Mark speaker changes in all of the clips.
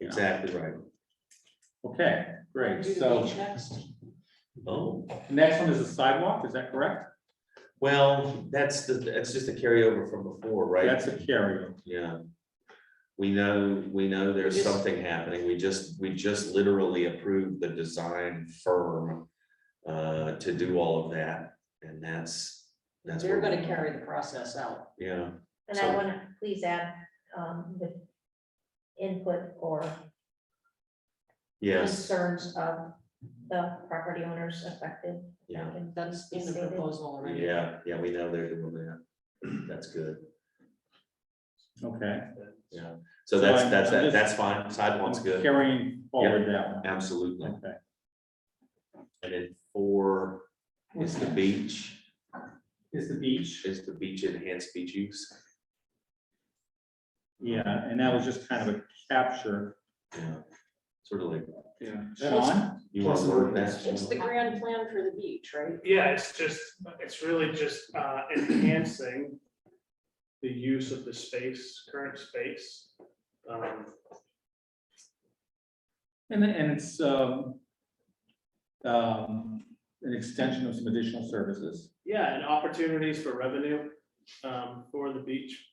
Speaker 1: Exactly right.
Speaker 2: Okay, great,
Speaker 3: Do the
Speaker 2: so
Speaker 3: beach next.
Speaker 1: Oh,
Speaker 2: next one is the sidewalk, is that correct?
Speaker 1: well, that's the, that's just a carryover from before, right?
Speaker 2: That's a carryover.
Speaker 1: Yeah. We know, we know there's
Speaker 3: Yes.
Speaker 1: something happening. We just, we just literally approved the design firm uh, to do all of that, and that's, that's.
Speaker 3: They're
Speaker 1: where we-
Speaker 3: gonna carry the process out.
Speaker 1: Yeah,
Speaker 4: And I
Speaker 1: So-
Speaker 4: want to please add, um, the input or
Speaker 1: yes,
Speaker 4: concerns of the property owners affected.
Speaker 1: yeah,
Speaker 3: That's in the proposal already.
Speaker 1: yeah, yeah, we know they're doing that. That's good,
Speaker 2: Okay.
Speaker 1: yeah. So
Speaker 2: So
Speaker 1: that's,
Speaker 2: I'm-
Speaker 1: that's,
Speaker 2: I'm just-
Speaker 1: that's fine. Sidewalk's
Speaker 2: I'm
Speaker 1: good,
Speaker 2: Carrying forward that one,
Speaker 1: absolutely.
Speaker 2: okay.
Speaker 1: And then four is the beach,
Speaker 2: Is the beach,
Speaker 1: is the beach enhanced beach use.
Speaker 2: yeah, and that was just kind of a capture.
Speaker 1: Yeah, Sort of like,
Speaker 5: Yeah.
Speaker 2: Sean,
Speaker 1: you want to
Speaker 5: Plus
Speaker 1: work
Speaker 5: it's-
Speaker 1: that?
Speaker 3: It's the grand plan for the beach, right?
Speaker 5: Yeah, it's just, it's really just uh, enhancing the use of the space, current space. Um,
Speaker 2: and, and it's, um, um, an extension of some additional services.
Speaker 5: Yeah, and opportunities for revenue um, for the beach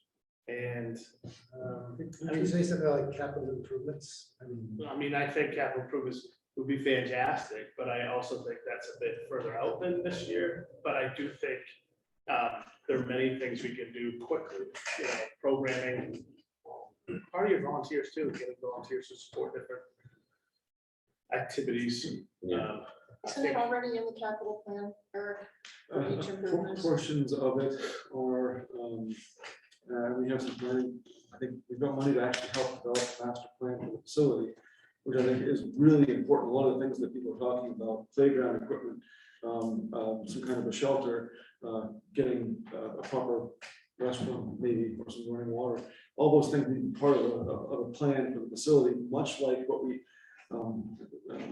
Speaker 5: and
Speaker 6: Uh,
Speaker 5: um,
Speaker 6: Can you say something like capital improvements? I mean,
Speaker 5: I mean, I think capital improvements would be fantastic, but I also think that's a bit further out than this year. But I do think uh, there are many things we can do quickly, you know, programming. Part of your volunteers too, getting volunteers to support different activities.
Speaker 1: Yeah,
Speaker 5: um, I
Speaker 3: Isn't it
Speaker 5: think-
Speaker 3: already in the capital plan, Eric? for
Speaker 7: Uh,
Speaker 3: each
Speaker 7: por-
Speaker 3: improvement?
Speaker 7: Portions of it are, um, uh, we have some money, I think we've got money to actually help develop a master plan for the facility, which I think is really important. A lot of the things that people are talking about, playground equipment, um, um, some kind of a shelter, uh, getting uh, a proper restaurant maybe, or some running water. All those things being part of a, of of a plan for the facility, much like what we, um, um,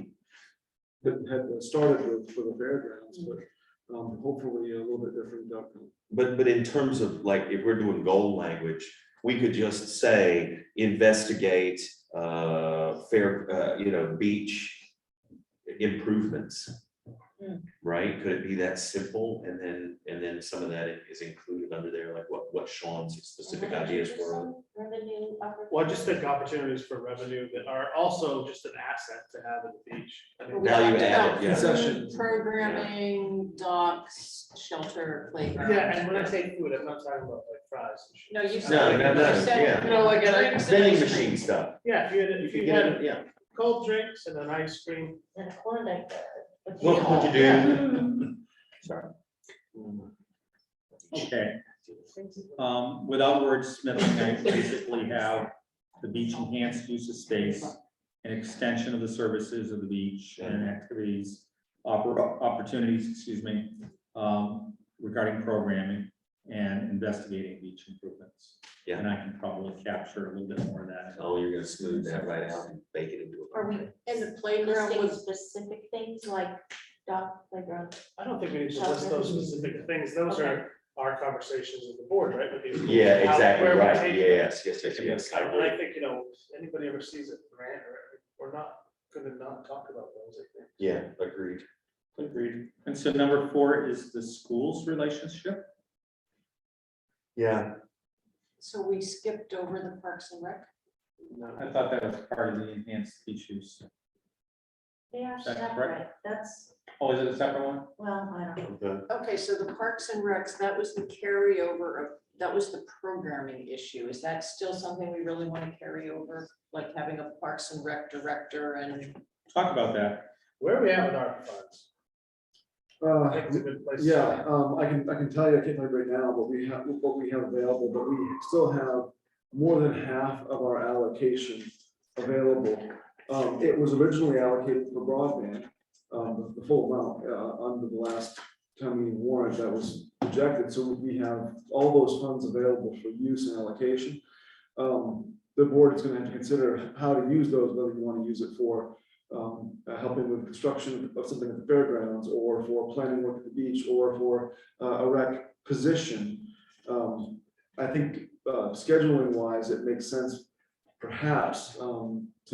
Speaker 7: had, had started with for the fairgrounds, but um, hopefully a little bit different outcome.
Speaker 1: but, but in terms of like, if we're doing goal language, we could just say investigate, uh, fair, uh, you know, beach improvements.
Speaker 4: Hmm.
Speaker 1: Right? Could it be that simple? And then, and then some of that is included under there, like what, what Sean's specific ideas were.
Speaker 4: Revenue. opportunities.
Speaker 5: Well, I just think opportunities for revenue that are also just an asset to have at the beach. I mean,
Speaker 3: We
Speaker 1: Value
Speaker 3: talked about
Speaker 1: added, yeah.
Speaker 3: food,
Speaker 7: Concessions.
Speaker 3: Programming, docks, shelter, playground.
Speaker 5: Yeah, and when I say food, I'm not talking about like fries and shit.
Speaker 3: No, you
Speaker 1: No,
Speaker 3: said,
Speaker 1: no, no,
Speaker 3: you said,
Speaker 1: yeah.
Speaker 3: you know, like a drinks and
Speaker 1: Vending
Speaker 3: ice cream.
Speaker 1: machine stuff.
Speaker 5: Yeah, if you had, if
Speaker 1: You
Speaker 5: you had
Speaker 1: get it, yeah.
Speaker 5: cold drinks and an ice cream,
Speaker 4: And Klondike. uh, what you
Speaker 1: What
Speaker 4: know.
Speaker 1: would you do? Sorry.
Speaker 2: Okay. Um, without wordsmithing, I basically have the beach enhanced use of space, an extension of the services of the beach and activities, oppor- opportunities, excuse me, um, regarding programming and investigating beach improvements.
Speaker 1: Yeah.
Speaker 2: And I can probably capture a little bit more of that.
Speaker 1: Oh, you're gonna smooth that right out and bake it into a.
Speaker 4: Are we
Speaker 3: And the playground
Speaker 4: listing
Speaker 3: was,
Speaker 4: specific things like dock playground?
Speaker 5: I don't think we need to list those specific things, those are our conversations with the board, right? with these-
Speaker 1: Yeah,
Speaker 5: how-
Speaker 1: exactly,
Speaker 5: where we're
Speaker 1: right,
Speaker 5: taking-
Speaker 1: yes, yes, yes, yes.
Speaker 5: I, I think, you know, anybody ever sees a grant or, we're not, gonna not talk about those, I think.
Speaker 1: Yeah, agreed.
Speaker 2: Agreed. And so number four is the school's relationship.
Speaker 1: Yeah.
Speaker 3: so we skipped over the Parks and Rec.
Speaker 2: I thought that was part of the enhanced beach use.
Speaker 4: They are
Speaker 2: That's correct.
Speaker 4: separate. That's,
Speaker 2: Oh, is it a separate one?
Speaker 4: well, I don't know.
Speaker 3: Okay, so the Parks and Recs, that was the carryover of, that was the programming issue. Is that still something we really want to carry over? Like having a Parks and Rec director and
Speaker 2: Talk about that.
Speaker 5: Where are we at with our funds? I think it's a
Speaker 6: Uh,
Speaker 5: good place to
Speaker 6: yeah, um, I can, I can tell you, I can't remember right now, but we have, what we have available, but we still have more than half of our allocation available. Um, it was originally allocated for broadband, um, the full amount, uh, under the last town meeting warrant that was rejected, so we have all those funds available for use and allocation. Um, the board is gonna have to consider how to use those, whether you wanna use it for um, uh, helping with construction of something at the fairgrounds or for planning work at the beach or for uh, a rec position. Um, I think, uh, scheduling wise, it makes sense perhaps, um, to